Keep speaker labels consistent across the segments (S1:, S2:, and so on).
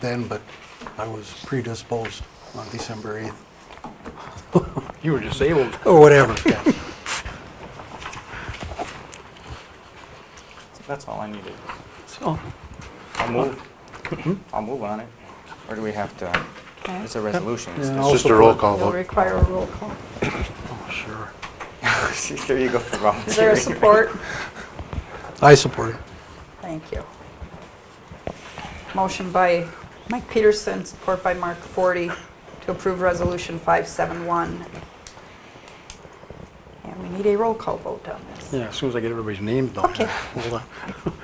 S1: then, but I was predisposed on December 8th,
S2: You were disabled.
S1: or whatever. yeah.
S3: That's all I needed.
S1: So,
S3: I'll move. I'll move on it. Or do we have to,
S4: Okay.
S3: it's a resolution.
S1: Yeah.
S3: it's
S1: I'll
S5: It's just a roll
S1: support-
S5: call
S4: It'll
S5: vote.
S4: require a roll call.
S1: oh, sure.
S3: just- There you go for volunteering.
S4: Is there a support?
S1: I support it.
S4: Thank you. Motion by Mike Peterson, support by Mark Forty, to approve Resolution 571. And we need a roll call vote on this.
S2: Yeah, as soon as I get everybody's name down.
S4: Okay.
S2: Hold on.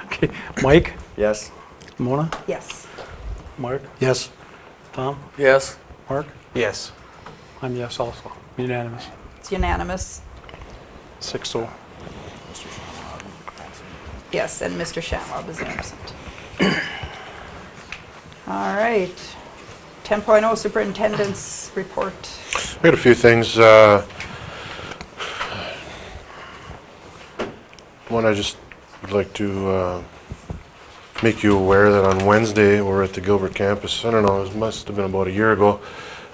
S2: Okay, Mike,
S3: Yes.
S2: Mona,
S4: Yes.
S2: Mark,
S1: Yes,
S2: Tom,
S3: Yes.
S2: Mark,
S3: Yes.
S2: I'm yes also. Unanimous,
S4: It's unanimous.
S2: six oh.
S4: Yes, and Mr. Shatwob is absent. All right. 10.0 Superintendent's Report.
S5: We had a few things. uh, One, I just would like to uh, make you aware that on Wednesday, we're at the Gilbert campus. I don't know, it must have been about a year ago.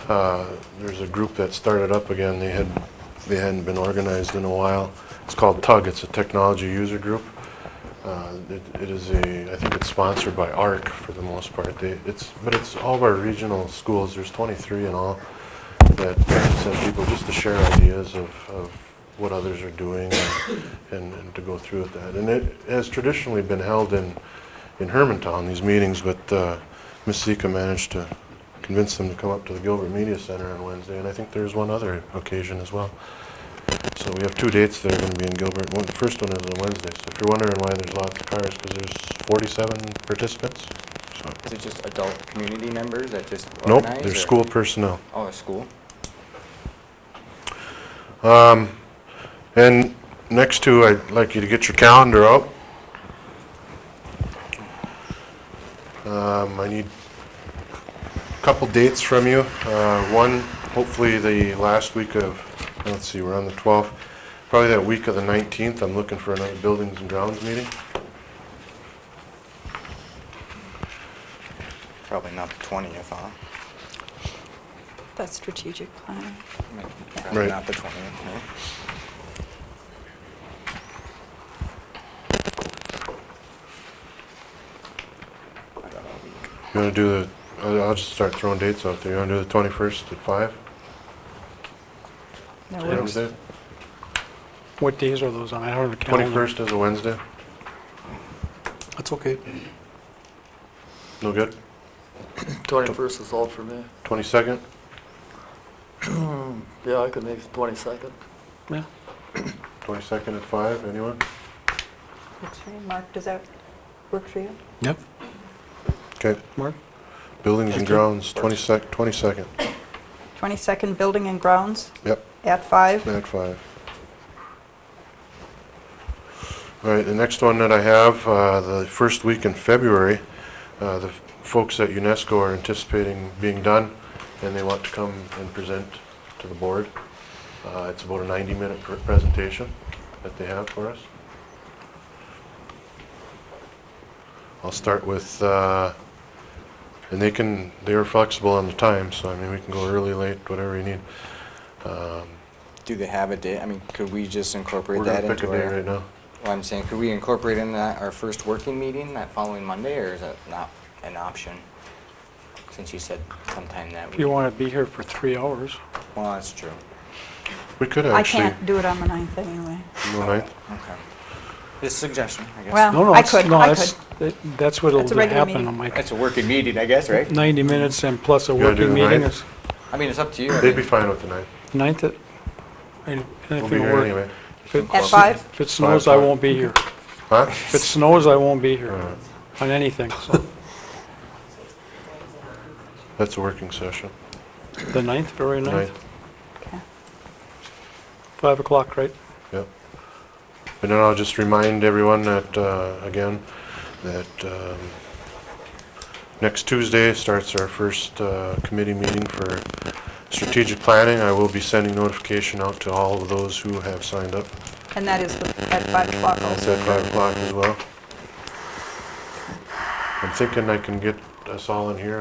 S5: uh, There's a group that started up again. They had, they hadn't been organized in a while. It's called TUG. It's a technology user group. Uh, It it is a, I think it's sponsored by ARC for the most part. They, it's, but it's all of our regional schools, there's 23 in all, that parents and people, just to share ideas of, of what others are doing and- and and to go through with that. And it has traditionally been held in, in Hermantown, these meetings, but uh, Ms. Zika managed to convince them to come up to the Gilbert Media Center on Wednesday, and I think there's one other occasion as well. So we have two dates that are going to be in Gilbert. One, the first one is on Wednesday. So if you're wondering why there's lots of cars, because there's 47 participants. So
S3: Is it just adult community members that just
S5: nope,
S3: organize?
S5: there's
S3: or-
S5: school personnel.
S3: Oh, it's school?
S5: And next to, I'd like you to get your calendar out. Um, I need a couple dates from you. Uh, One, hopefully the last week of, let's see, we're on the 12th, probably that week of the 19th, I'm looking for another Buildings and Grounds meeting.
S3: Probably not the twentieth, huh?
S4: That's strategic planning.
S3: Probably
S5: Right.
S3: Not the twentieth, no. I got all week.
S5: You want to do the, I'll I'll just start throwing dates out there. You want to do the 21st at 5?
S4: That works.
S5: Wednesday?
S2: What days are those on? I don't have a calendar.
S5: 21st is a Wednesday?
S1: that's okay.
S5: No good?
S6: 21st is all for me.
S5: 22nd?
S6: Yeah, I could make the 22nd.
S2: 21st.
S5: 22nd at 5, anyone?
S4: Works for you. Mark, does that work for you?
S1: Yep.
S5: Okay.
S2: Mark?
S5: Buildings and
S2: Thank you.
S5: grounds, 22nd, 22nd.
S4: 22nd Building and Grounds
S5: Yep,
S4: at 5.
S5: at 5. All right, the next one that I have, uh, the first week in February, uh, the folks at UNESCO are anticipating being done, and they want to come and present to the board. Uh, It's about a 90-minute pr- presentation that they have for us. I'll start with, uh, and they can, they are flexible on the time, so I mean, we can go early, late, whatever you need. Um,
S3: Do they have a day? I mean, could we just incorporate
S5: We're
S3: that
S5: gonna pick
S3: into
S5: a
S3: our?
S5: day right now.
S3: Well, I'm saying, could we incorporate in that our first working meeting that following Monday, or is that not an option? Since you said sometime that
S2: If
S3: week.
S2: you want to be here for three hours,
S3: Well, that's true.
S5: We could
S4: I
S5: actually.
S4: can't do it on the 9th anyway.
S5: No, ninth?
S3: Okay. Just suggestion, I guess.
S4: Well-
S2: no, no.
S4: Uh, I
S2: it's-
S4: could,
S2: no,
S4: I
S2: that's- that- That's what'll
S4: It's a regular
S2: happen
S4: meeting.
S2: on my,
S3: That's a working meeting, I guess, right?
S2: 90 minutes and plus a
S5: You wanna do
S2: working
S5: the
S2: meeting
S5: ninth?
S2: is
S3: I mean, it's up to you. I
S5: They'd be
S3: mean,
S5: fine with the ninth.
S2: 9th. at- and- and if
S5: We'll be
S2: it'll
S5: here
S2: work-
S5: anyway.
S2: if it-
S4: At 5?
S2: If it snows, I
S5: o'clock.
S2: won't be here.
S5: Huh?
S2: If it snows, I won't be here
S5: Alright.
S2: on anything, so.
S5: That's a working session.
S2: The ninth, February ninth,
S5: Ninth,
S4: Okay.
S2: 5 o'clock, right?
S5: Yep. And then I'll just remind everyone that, uh, again, that um, next Tuesday starts our first uh, committee meeting for strategic planning. I will be sending notification out to all of those who have signed up.
S4: And that is with- at 5 o'clock
S5: It's
S4: also.
S5: at 5 o'clock as well. I'm thinking I can get us all in here